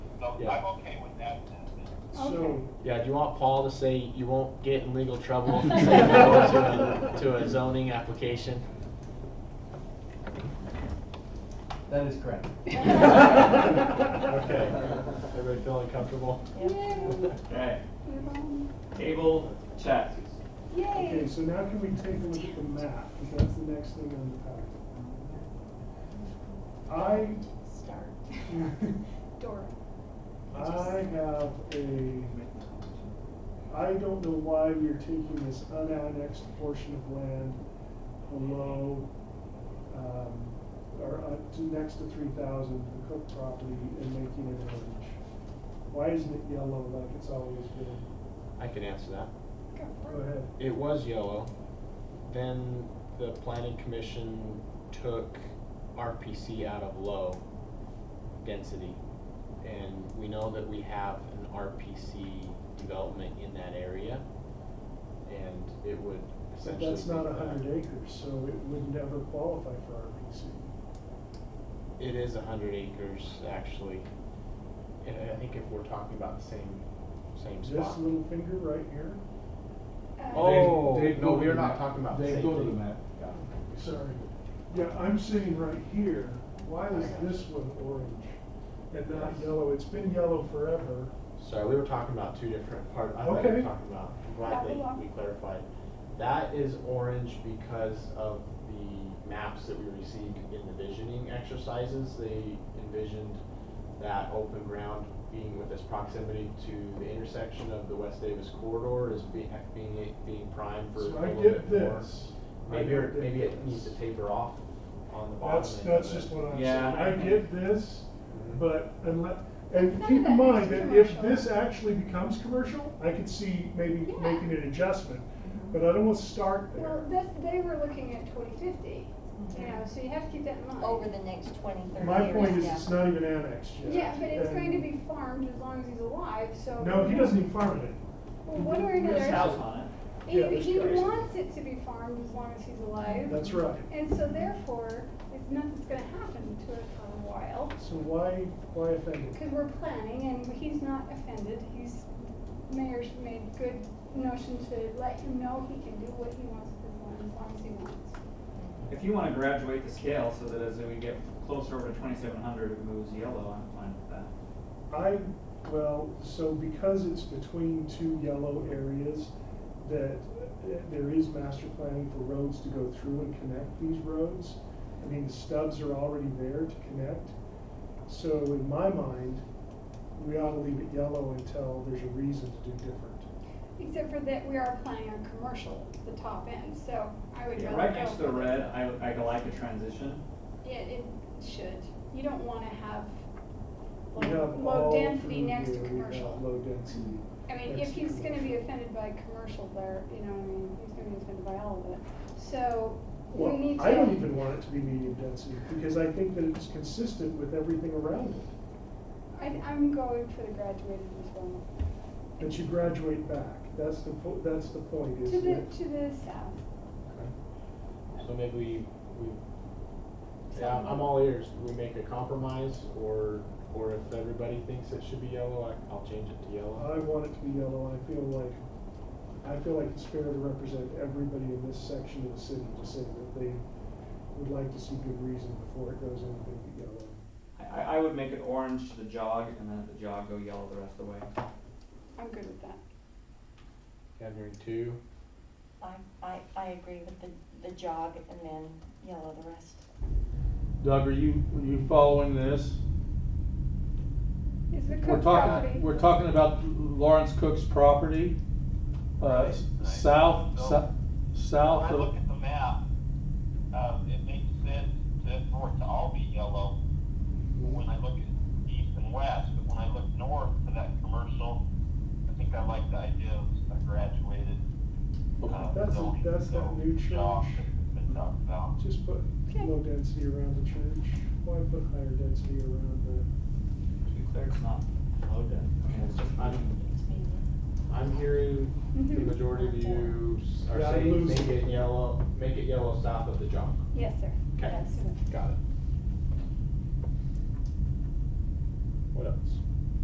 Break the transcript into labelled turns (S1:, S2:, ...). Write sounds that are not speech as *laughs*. S1: so
S2: Yeah.
S1: I'm okay with that then.
S3: So,
S2: Yeah, do you want Paul to say you won't get in legal trouble if you say no to a, to a zoning application?
S4: That is correct.
S2: Okay, everybody feeling comfortable?
S5: Okay. Table, check.
S3: okay, so now can we take a look at the map, because that's the next thing on the packet. I, *laughs*
S6: Start. Dora.
S3: I have a, I don't know why we are taking this unannexed portion of land below, um, or up to next to three thousand, the Cook property, and making it orange. Why isn't it yellow like it's always been?
S2: I can answer that.
S3: Go ahead.
S2: It was yellow. Then the planning commission took RPC out of low density. And we know that we have an RPC development in that area. And it would
S3: But
S2: essentially.
S3: that's not
S2: make that-
S3: hundred acres, so it would never qualify for RPC.
S2: It is a hundred acres, actually. And I think if we're talking about the same, same
S3: This
S2: spot.
S3: little finger right here,
S6: Uh,
S2: Oh,
S4: They- they
S2: no,
S4: go
S2: we
S4: to
S2: are
S4: the
S2: not
S4: map.
S2: talking about the
S4: They
S2: same
S4: go to the
S2: thing.
S4: map.
S3: sorry. Yeah, I'm sitting right here, why is this one orange and not yellow? It's been yellow forever.
S2: Sorry, we were talking about two different part, I thought we were
S3: Okay.
S2: talking about, I'm glad
S6: Apple.
S2: that we clarified. That is orange because of the maps that we received in the visioning exercises, they envisioned that open ground being with its proximity to the intersection of the West Davis corridor is being, being, being primed for a
S3: So I
S2: little
S3: get
S2: bit more.
S3: this. I
S2: Maybe, or-
S3: get
S2: maybe it
S3: this.
S2: needs to taper off on the bottom.
S3: That's,
S2: end of
S3: that's
S2: it.
S3: just what I'm saying,
S5: Yeah.
S3: I get this,
S2: Mhm.
S3: but unless, and
S6: None
S3: keep
S6: of
S3: in
S6: that
S3: mind
S6: is
S3: that if
S6: commercial.
S3: this actually becomes commercial, I could see maybe
S6: Yeah. Mm-hmm.
S3: making an adjustment, but I don't want to start there.
S6: Well, that's, they were looking at twenty fifty, you know, so you have to keep that in mind.
S7: over the next twenty, thirty years.
S3: My point is,
S7: yeah.
S3: it's not even annexed yet.
S6: Yeah, but it's
S3: and-
S6: going to be farmed as long as he's alive, so.
S3: No, he doesn't even farm it.
S6: Well, one way or
S5: There's a house
S6: another,
S5: on it.
S6: he,
S3: Yeah, there's
S6: he
S3: cars.
S6: wants it to be farmed as long as he's alive.
S3: That's right.
S6: And so therefore, it's nothing's gonna happen to it for a while,
S3: So why, why offend it?
S6: because we're planning and he's not offended, he's, mayor's made good notion to let him know he can do what he wants with his land as long as he wants.
S5: If you wanna graduate the scale so that as we get closer over to twenty-seven hundred, it moves yellow, I'm fine with that.
S3: I, well, so because it's between two yellow areas, that uh, there is master planning for roads to go through and connect these roads. I mean, the stubs are already there to connect. So in my mind, we ought to leave it yellow until there's a reason to do different.
S6: Except for that we are planning on commercial, the top end, so I would
S5: Yeah,
S6: rather go.
S5: right next to the
S6: for-
S5: red, I, I like a transition.
S6: Yeah, it should. You don't wanna have
S3: We
S6: low,
S3: have
S6: low
S3: all
S6: density
S3: through
S6: next to
S3: here, we have
S6: commercial.
S3: Low density.
S6: I mean,
S3: next
S6: if
S3: to
S6: he's gonna be
S3: commercial.
S6: offended by commercial there, you know, what I mean, he's gonna be offended by all of it. So, we
S3: Well,
S6: need to.
S3: I don't even want it to be medium density, because I think that it's consistent with everything around it.
S6: I, am going for the graduated as well.
S3: But you graduate back, that's the, po- that's the point,
S6: To
S3: is
S6: the,
S3: that,
S6: to the south.
S2: So maybe we, we, yeah, I'm- I'm all ears, we make a compromise, or, or if everybody thinks it should be yellow, I, I'll change it to yellow.
S3: I want it to be yellow, I feel like, I feel like it's fair to represent everybody in this section of the city to say that they would like to see good reason before it goes anything but yellow.
S5: I, I, I would make it orange to the jog and then at the jog go yellow the rest of the way.
S6: I'm good with that.
S3: Uh,
S2: Gathering two,
S7: I, I, I agree with the, the jog and then yellow the rest.
S8: Doug, are you, are you following this?
S6: Is the
S8: We're
S6: Cook property?
S8: talking, we're talking about Lawrence Cook's property, uh, s-
S1: Right, right.
S8: south,
S1: So-
S8: sou-
S1: When
S8: south
S1: I look
S8: of,
S1: at the map, um, it makes sense to, for it to all be yellow when I look at east and west, but when I look north to that commercial, I think I like the idea of a graduated, uh,
S3: That's-
S1: zoning.
S3: that's that
S1: So,
S3: new
S1: jog
S3: church.
S1: that's Been talked about.
S3: Just put
S6: Okay.
S3: low density around the church, why put higher density around the?
S5: To be clear, it's not low density. it's just
S2: I'm,
S7: It's me.
S2: I'm hearing the
S6: Mhm.
S2: majority of you s- are
S3: Yeah, I
S2: saying,
S3: lose.
S2: make it yellow, make it yellow south of the jump.
S6: Yes, sir.
S2: Okay.
S6: That's it.
S2: Got it. What else?